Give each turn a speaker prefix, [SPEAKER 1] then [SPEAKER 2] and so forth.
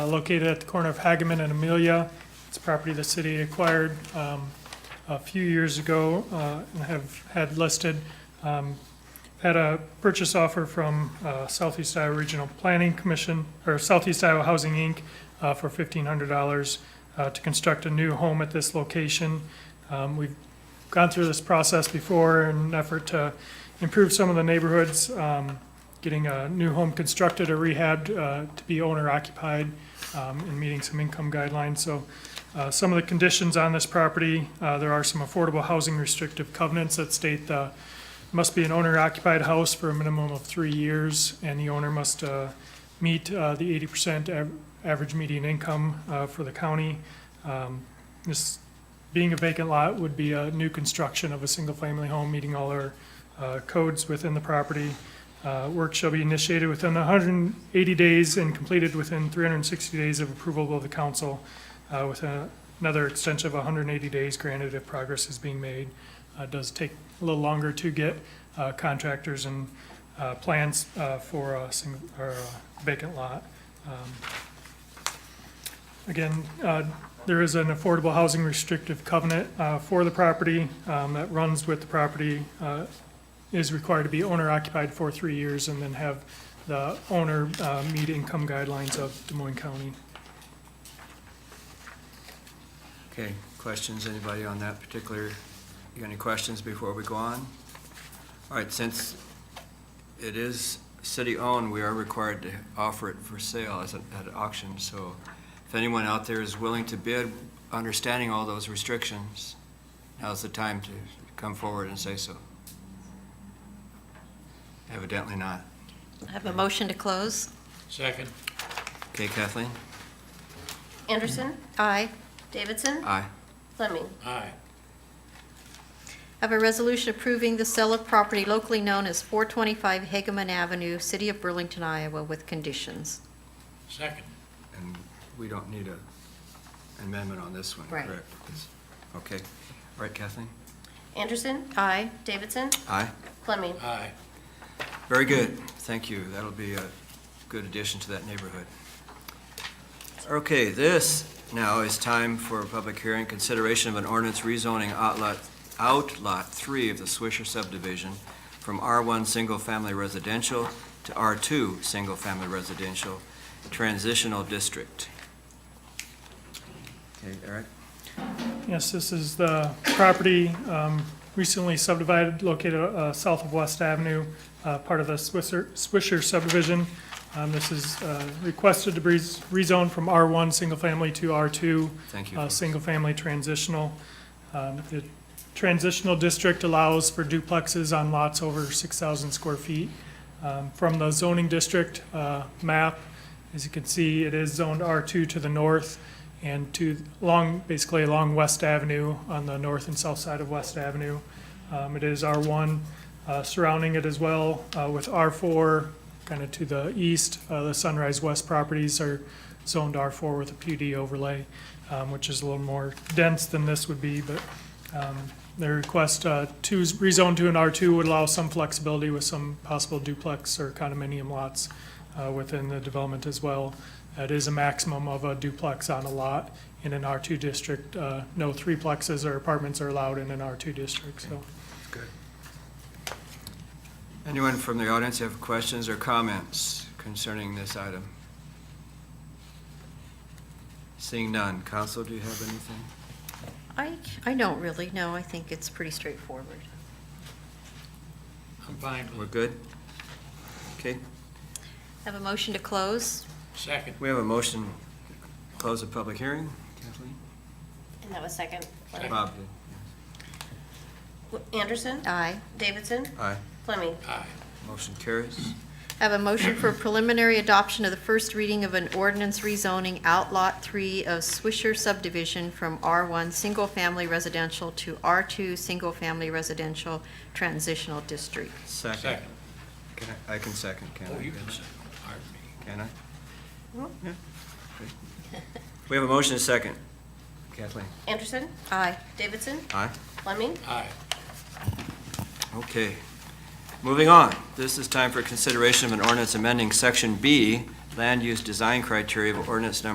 [SPEAKER 1] uh, located at the corner of Hagaman and Amelia. It's property the city acquired um, a few years ago uh, and have had listed. Um, Had a purchase offer from uh, Southeast Iowa Regional Planning Commission, or Southeast Iowa Housing, Inc., uh, for $1,500 uh, to construct a new home at this location. Um, We've gone through this process before in an effort to improve some of the neighborhoods, um, getting a new home constructed or rehabbed uh, to be owner occupied um, and meeting some income guidelines. So uh, some of the conditions on this property, uh, there are some affordable housing restrictive covenants that state uh, must be an owner occupied house for a minimum of three years, and the owner must uh, meet uh, the 80% av- average median income uh, for the county. Um, This being a vacant lot would be a new construction of a single-family home, meeting all our uh, codes within the property. Uh, Work shall be initiated within 180 days and completed within 360 days of approval of the council, uh, with a- another extension of 180 days granted if progress is being made. Uh, It does take a little longer to get uh, contractors and uh, plans uh, for a single, or a vacant lot. Um, Again, uh, there is an affordable housing restrictive covenant uh, for the property um, that runs with the property, uh, is required to be owner occupied for three years and then have the owner uh, meet income guidelines of Des Moines County.
[SPEAKER 2] Okay, questions, anybody on that particular, you got any questions before we go on? All right, since it is city-owned, we are required to offer it for sale as an, at an auction, so if anyone out there is willing to bid, understanding all those restrictions, now's the time to come forward and say so. Evidently not.
[SPEAKER 3] I have a motion to close.
[SPEAKER 4] Second.
[SPEAKER 2] Okay, Kathleen?
[SPEAKER 5] Anderson,
[SPEAKER 3] Aye.
[SPEAKER 5] Davidson,
[SPEAKER 2] Aye.
[SPEAKER 5] Fleming.
[SPEAKER 4] Aye.
[SPEAKER 3] I have a resolution approving the sale of property locally known as 425 Hageman Avenue, City of Burlington, Iowa, with conditions.
[SPEAKER 4] Second.
[SPEAKER 2] And we don't need a amendment on this one,
[SPEAKER 3] Right.
[SPEAKER 2] correct? Okay, all right, Kathleen?
[SPEAKER 5] Anderson,
[SPEAKER 3] Aye.
[SPEAKER 5] Davidson,
[SPEAKER 2] Aye.
[SPEAKER 5] Fleming.
[SPEAKER 4] Aye.
[SPEAKER 2] Very good, thank you. That'll be a good addition to that neighborhood. Okay, this now is time for a public hearing, consideration of an ordinance rezoning outlot, outlot three of the Swisher subdivision from R1 Single Family Residential to R2 Single Family Residential Transitional District. Okay, Eric?
[SPEAKER 1] Yes, this is the property um, recently subdivided, located uh, south of West Avenue, uh, part of the Swisher Swisher subdivision. Um, This is uh, requested to be rezoned from R1 single family to R2
[SPEAKER 2] Thank you.
[SPEAKER 1] uh,
[SPEAKER 2] folks.
[SPEAKER 1] single-family transitional. Um, The transitional district allows for duplexes on lots over 6,000 square feet. Um, From the zoning district uh, map, as you can see, it is zoned R2 to the north and to, along, basically along West Avenue, on the north and south side of West Avenue. Um, It is R1 uh, surrounding it as well, uh, with R4 kind of to the east. Uh, The Sunrise West properties are zoned R4 with a PUD overlay um, which is a little more dense than this would be, but um, their request uh, to s- rezone to an R2 would allow some flexibility with some possible duplex or condominium lots uh, within the development as well. It is a maximum of a duplex on a lot in an R2 district. Uh, No threeplexes or apartments are allowed in an R2 district, so.
[SPEAKER 2] Anyone from the audience have questions or comments concerning this item? Seeing none, council, do you have anything?
[SPEAKER 3] I, I don't really, no, I think it's pretty straightforward.
[SPEAKER 4] I'm fine
[SPEAKER 2] We're
[SPEAKER 4] with it.
[SPEAKER 2] good? Okay,
[SPEAKER 3] I have a motion to close.
[SPEAKER 4] Second.
[SPEAKER 2] we have a motion to close the public hearing. Kathleen?
[SPEAKER 5] And that was second. Fleming.
[SPEAKER 2] Bob?
[SPEAKER 5] Anderson,
[SPEAKER 3] Aye.
[SPEAKER 5] Davidson,
[SPEAKER 2] Aye.
[SPEAKER 5] Fleming.
[SPEAKER 4] Aye.
[SPEAKER 2] Motion carries.
[SPEAKER 3] I have a motion for preliminary adoption of the first reading of an ordinance rezoning Outlot 3 of Swisher subdivision from R1 Single Family Residential to R2 Single Family Residential Transitional District.
[SPEAKER 2] Second.
[SPEAKER 4] Second.
[SPEAKER 2] Can I I can second, can I?
[SPEAKER 4] Oh, you can second. Pardon me.
[SPEAKER 2] Can I?
[SPEAKER 5] Mhm.
[SPEAKER 2] Yeah. Okay. We have a motion and a second. Kathleen?
[SPEAKER 5] Anderson,
[SPEAKER 3] Aye.
[SPEAKER 5] Davidson,
[SPEAKER 2] Aye.
[SPEAKER 5] Fleming.
[SPEAKER 4] Aye.
[SPEAKER 2] Okay. Moving on. This is time for consideration of an ordinance amending Section B, Land Use Design Criteria of Ordinance Number